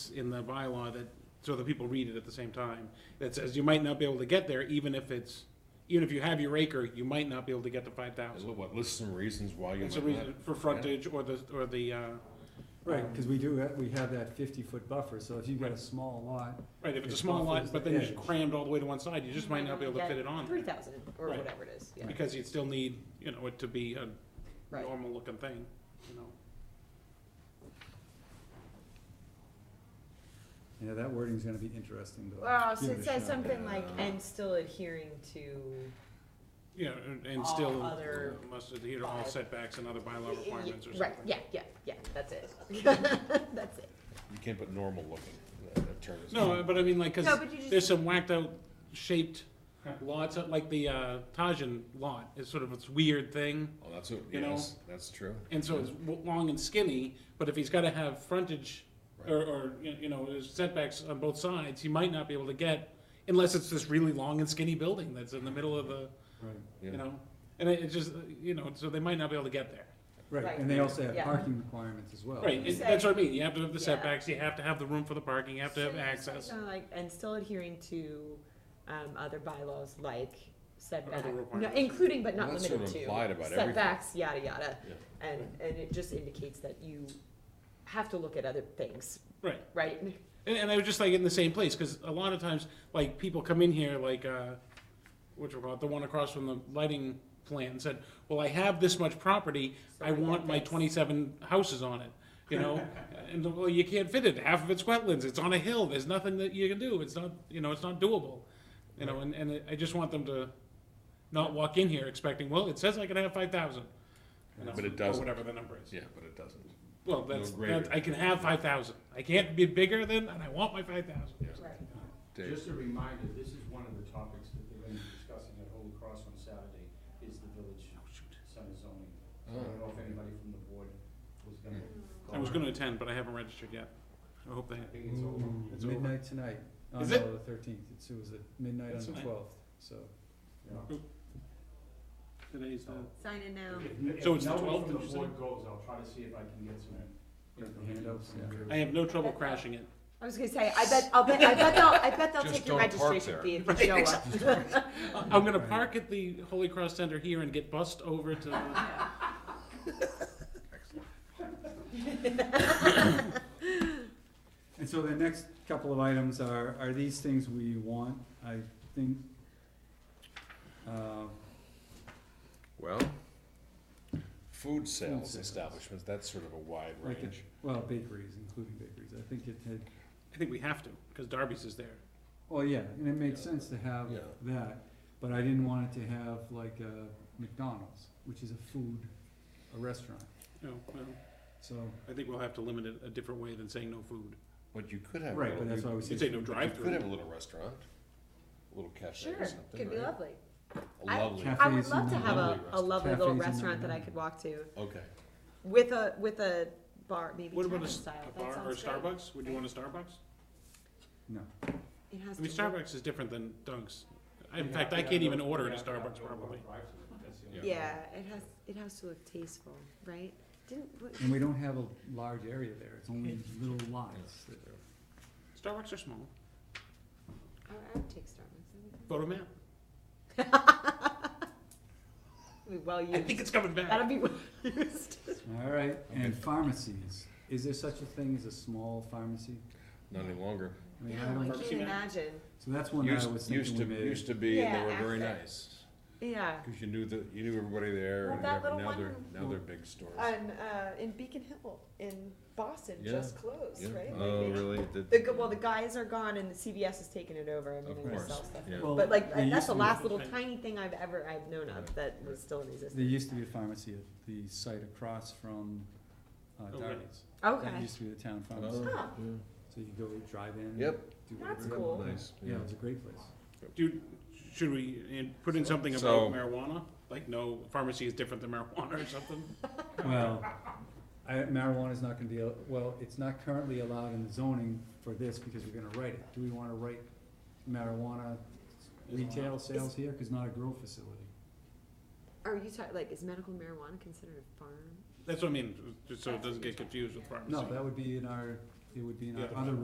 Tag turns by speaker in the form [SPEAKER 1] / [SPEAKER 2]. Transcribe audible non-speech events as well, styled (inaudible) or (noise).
[SPEAKER 1] in the bylaw that, so that people read it at the same time, that says you might not be able to get there even if it's, even if you have your acre, you might not be able to get to five thousand.
[SPEAKER 2] What, list some reasons why you
[SPEAKER 1] It's a
[SPEAKER 2] might not?
[SPEAKER 1] reason for frontage or the, or the, uh,
[SPEAKER 3] Right, because we do, ha- we have that fifty-foot buffer, so if you've got a
[SPEAKER 1] Right.
[SPEAKER 3] small lot,
[SPEAKER 1] right, if it's a
[SPEAKER 3] It's
[SPEAKER 1] small
[SPEAKER 3] off
[SPEAKER 1] lot,
[SPEAKER 3] as
[SPEAKER 1] but
[SPEAKER 3] the
[SPEAKER 1] then it's
[SPEAKER 3] edge.
[SPEAKER 1] crammed all the way to one side, you just might not be able to fit it on. there,
[SPEAKER 4] Three thousand, or
[SPEAKER 1] Right.
[SPEAKER 4] whatever it is, yeah,
[SPEAKER 1] Because you'd still need, you know, it to be a
[SPEAKER 4] right.
[SPEAKER 1] normal looking thing, you know.
[SPEAKER 3] yeah, that wording's gonna be interesting to.
[SPEAKER 4] Well, so
[SPEAKER 3] give
[SPEAKER 4] it
[SPEAKER 3] a
[SPEAKER 4] says
[SPEAKER 3] shot.
[SPEAKER 4] something like,
[SPEAKER 2] Yeah.
[SPEAKER 4] and still adhering to,
[SPEAKER 1] Yeah, and- and
[SPEAKER 4] All
[SPEAKER 1] still
[SPEAKER 4] other
[SPEAKER 1] must adhere to all
[SPEAKER 4] bylaw-
[SPEAKER 1] setbacks and other bylaw requirements or something.
[SPEAKER 4] right, yeah, yeah, yeah, that's (laughs) it, that's it.
[SPEAKER 2] You can't put normal looking, uh, that that term is.
[SPEAKER 1] No, but I mean, like,
[SPEAKER 4] No,
[SPEAKER 1] because
[SPEAKER 4] but you just-
[SPEAKER 1] there's some whacked out shaped lots, like the uh, Tajin lot is sort of this weird thing.
[SPEAKER 2] Oh, that's, what-
[SPEAKER 1] You know?
[SPEAKER 2] yes, that's true.
[SPEAKER 1] And so it's w- long and skinny, but if he's got to have frontage or, or, you you know, there's setbacks on both sides, he might not be able to get, unless it's this really long and skinny building that's in the middle of the,
[SPEAKER 3] Right,
[SPEAKER 1] you
[SPEAKER 2] Yeah.
[SPEAKER 1] know, and it it just, uh, you know, so they might not be able to get there.
[SPEAKER 3] Right,
[SPEAKER 4] Right,
[SPEAKER 3] and they also have
[SPEAKER 4] yeah.
[SPEAKER 3] parking requirements as well.
[SPEAKER 1] Right, it-
[SPEAKER 4] Say-
[SPEAKER 1] that's what I mean, you have to have the
[SPEAKER 4] Yeah.
[SPEAKER 1] setbacks, you have to have the room for the parking, you have to have
[SPEAKER 4] So it's like,
[SPEAKER 1] access.
[SPEAKER 4] kinda like, and still adhering to, um, other bylaws like setback, no,
[SPEAKER 1] requirements.
[SPEAKER 4] including but not
[SPEAKER 2] Well, that's sort
[SPEAKER 4] limited
[SPEAKER 2] of
[SPEAKER 4] to
[SPEAKER 2] implied about everything.
[SPEAKER 4] setbacks, yada, yada.
[SPEAKER 2] Yeah.
[SPEAKER 4] And, and it just indicates that you have to look at other things,
[SPEAKER 1] Right,
[SPEAKER 4] right?
[SPEAKER 1] and, and I was just like in the same place, because a lot of times, like, people come in here, like, uh, which we call it, the one across from the lighting plant, and said, well, I have this much property,
[SPEAKER 4] So
[SPEAKER 1] I
[SPEAKER 4] I
[SPEAKER 1] want
[SPEAKER 4] want
[SPEAKER 1] my
[SPEAKER 4] this."
[SPEAKER 1] twenty-seven houses on it, you know? And, well, you can't fit it, half of it's wetlands, it's on a hill, there's nothing that you can do, it's not, you know, it's not doable. You know, and, and I just want them to not walk in here expecting, well, it says I can have five thousand.
[SPEAKER 2] But it doesn't.
[SPEAKER 1] Or whatever the number is.
[SPEAKER 2] Yeah, but it doesn't.
[SPEAKER 1] Well, that's,
[SPEAKER 2] greater.
[SPEAKER 1] that's, I can have five thousand, I can't be bigger than, and I want my five thousand.
[SPEAKER 2] Yeah.
[SPEAKER 4] Right.
[SPEAKER 2] Dave,
[SPEAKER 5] Just a reminder, this is one of the topics that they're gonna be discussing at Holy Cross on Saturday, is the village
[SPEAKER 1] Oh,
[SPEAKER 5] center zoning. I don't know if anybody from the board was gonna.
[SPEAKER 1] I was gonna attend, but I haven't registered yet. I hope they,
[SPEAKER 5] I think it's over.
[SPEAKER 3] Ooh,
[SPEAKER 1] Mm, It's over.
[SPEAKER 3] midnight tonight, on
[SPEAKER 1] Is
[SPEAKER 3] the
[SPEAKER 1] it?
[SPEAKER 3] thirteenth, it was at midnight on
[SPEAKER 1] That's
[SPEAKER 3] the
[SPEAKER 1] fine.
[SPEAKER 3] twelfth, so.
[SPEAKER 5] Yeah.
[SPEAKER 1] today's the.
[SPEAKER 4] Sign in now.
[SPEAKER 5] If-
[SPEAKER 1] So it's the
[SPEAKER 5] If no
[SPEAKER 1] 12th,
[SPEAKER 5] one from
[SPEAKER 1] did you
[SPEAKER 5] the
[SPEAKER 1] say?
[SPEAKER 5] board goes, I'll try to see if I can get some information.
[SPEAKER 3] Handouts, yeah.
[SPEAKER 1] I have no trouble crashing it.
[SPEAKER 4] I was gonna say, I bet, I'll bet, I bet they'll, I bet they'll
[SPEAKER 2] Just
[SPEAKER 4] take your
[SPEAKER 2] don't park
[SPEAKER 4] registration
[SPEAKER 2] there.
[SPEAKER 4] fee if you show up.
[SPEAKER 1] I'm gonna park at the Holy Cross Center here and get bussed over to, the-
[SPEAKER 3] And so the next couple of items are, are these things we want, I think, uh,
[SPEAKER 2] well, food sales
[SPEAKER 3] sales.
[SPEAKER 2] establishments, that's sort of a wide
[SPEAKER 3] Like a-
[SPEAKER 2] range.
[SPEAKER 3] well, bakeries, including bakeries, I think it had,
[SPEAKER 1] I think we have to, cause Darby's is there.
[SPEAKER 3] well, yeah, and it made sense to have
[SPEAKER 2] Yeah.
[SPEAKER 3] that, but I didn't want it to have like a McDonald's, which is a food, a restaurant,
[SPEAKER 1] No, well,
[SPEAKER 3] so,
[SPEAKER 1] I think we'll have to limit it a different way than saying no food.
[SPEAKER 2] But you could have. a
[SPEAKER 3] right,
[SPEAKER 2] little-
[SPEAKER 3] but that's
[SPEAKER 2] you-
[SPEAKER 3] why we say.
[SPEAKER 1] You'd say no
[SPEAKER 2] You could have
[SPEAKER 1] drive-through.
[SPEAKER 2] a little restaurant, a little cafe
[SPEAKER 4] (laughs) Sure,
[SPEAKER 2] or something,
[SPEAKER 4] could be
[SPEAKER 2] right?
[SPEAKER 4] lovely.
[SPEAKER 2] A
[SPEAKER 4] I-
[SPEAKER 2] lovely,
[SPEAKER 3] Cafe.
[SPEAKER 4] I would
[SPEAKER 3] Cafes
[SPEAKER 4] love to
[SPEAKER 3] and
[SPEAKER 4] have a,
[SPEAKER 2] lovely
[SPEAKER 4] a lovely little
[SPEAKER 3] Cafes and
[SPEAKER 4] restaurant that I
[SPEAKER 3] lovely.
[SPEAKER 4] could walk to
[SPEAKER 2] okay.
[SPEAKER 4] with a, with a bar, maybe
[SPEAKER 1] What about a
[SPEAKER 4] tavern
[SPEAKER 1] s-
[SPEAKER 4] style.
[SPEAKER 1] a
[SPEAKER 4] That
[SPEAKER 1] bar or a
[SPEAKER 4] sounds great.
[SPEAKER 1] Starbucks? Would you want a Starbucks?
[SPEAKER 3] No,
[SPEAKER 4] It has
[SPEAKER 1] I mean,
[SPEAKER 4] to look-
[SPEAKER 1] Starbucks is different than Dunk's. I- In
[SPEAKER 5] Yeah,
[SPEAKER 1] fact, I
[SPEAKER 5] yeah,
[SPEAKER 1] can't
[SPEAKER 5] no-
[SPEAKER 1] even order
[SPEAKER 5] yeah,
[SPEAKER 1] at a
[SPEAKER 5] no,
[SPEAKER 1] Starbucks
[SPEAKER 5] no,
[SPEAKER 1] probably.
[SPEAKER 5] drive-through, that's the only-
[SPEAKER 2] Yeah.
[SPEAKER 4] Yeah, it has, it has to look tasteful, right? Didn't, what,
[SPEAKER 3] and we don't have a large area there,
[SPEAKER 2] (laughs)
[SPEAKER 3] it's only little lots that are.
[SPEAKER 1] Starbucks are small.
[SPEAKER 4] oh, I would- I would take Starbucks.
[SPEAKER 1] Photo map.
[SPEAKER 4] It'd be Well
[SPEAKER 1] I
[SPEAKER 4] used.
[SPEAKER 1] think it's coming back.
[SPEAKER 4] That'll be well (laughs) used.
[SPEAKER 3] All right, and
[SPEAKER 2] Okay.
[SPEAKER 3] pharmacies, is there such a thing as a small pharmacy?
[SPEAKER 2] Not any longer.
[SPEAKER 3] I mean, I
[SPEAKER 4] No, I
[SPEAKER 3] don't,
[SPEAKER 4] can't
[SPEAKER 1] Pepsi Man.
[SPEAKER 4] imagine.
[SPEAKER 3] so that's one that I
[SPEAKER 2] Used,
[SPEAKER 3] was
[SPEAKER 2] used
[SPEAKER 3] thinking
[SPEAKER 2] to,
[SPEAKER 3] we made.
[SPEAKER 2] used to be, and they
[SPEAKER 4] Yeah,
[SPEAKER 2] were very
[SPEAKER 4] after.
[SPEAKER 2] nice,
[SPEAKER 4] Yeah.
[SPEAKER 2] cause you knew the, you knew everybody there,
[SPEAKER 4] Well,
[SPEAKER 2] and
[SPEAKER 4] that
[SPEAKER 2] whatever.
[SPEAKER 4] little
[SPEAKER 2] now they're,
[SPEAKER 4] one-
[SPEAKER 2] now they're big stores.
[SPEAKER 4] On, uh, in Beacon Hill in Boston,
[SPEAKER 2] Yeah.
[SPEAKER 4] just closed,
[SPEAKER 2] Yeah.
[SPEAKER 4] right?
[SPEAKER 2] Oh,
[SPEAKER 4] Like,
[SPEAKER 2] really?
[SPEAKER 4] The, gu- well, the guys are gone and the CVS has taken it over. I mean,
[SPEAKER 2] Of
[SPEAKER 4] they
[SPEAKER 2] course,
[SPEAKER 4] sell stuff.
[SPEAKER 2] yeah.
[SPEAKER 3] Well,
[SPEAKER 4] But like,
[SPEAKER 3] there
[SPEAKER 4] that's
[SPEAKER 3] used
[SPEAKER 4] the
[SPEAKER 3] to be-
[SPEAKER 4] last little tiny thing I've ever, I've known of that was still in
[SPEAKER 3] There
[SPEAKER 4] existence.
[SPEAKER 3] used to be a pharmacy at the site across from uh,
[SPEAKER 1] Okay.
[SPEAKER 3] Darby's. That
[SPEAKER 4] Okay.
[SPEAKER 3] used to be the town pharmacy,
[SPEAKER 2] Oh,
[SPEAKER 4] Huh.
[SPEAKER 2] yeah.
[SPEAKER 3] so you go drive in.
[SPEAKER 2] Yep.
[SPEAKER 3] do
[SPEAKER 4] That's
[SPEAKER 3] whatever.
[SPEAKER 4] cool.
[SPEAKER 2] Nice,
[SPEAKER 3] Yeah,
[SPEAKER 2] yeah.
[SPEAKER 3] it was a great place.
[SPEAKER 1] Dude, should we in- put in something
[SPEAKER 2] So-
[SPEAKER 1] about marijuana? Like, no, pharmacy is different than marijuana or something?
[SPEAKER 3] Well, I, marijuana's not gonna be, al- well, it's not currently allowed in the zoning for this because we're gonna write it. Do we wanna write marijuana retail sales here? Cause not a grow facility.
[SPEAKER 4] Are you talking, like, is medical marijuana considered a farm?
[SPEAKER 1] That's what I mean, just so it doesn't get confused with pharmacy.
[SPEAKER 3] No, that would be in our, it would be in
[SPEAKER 1] Yeah.
[SPEAKER 3] our other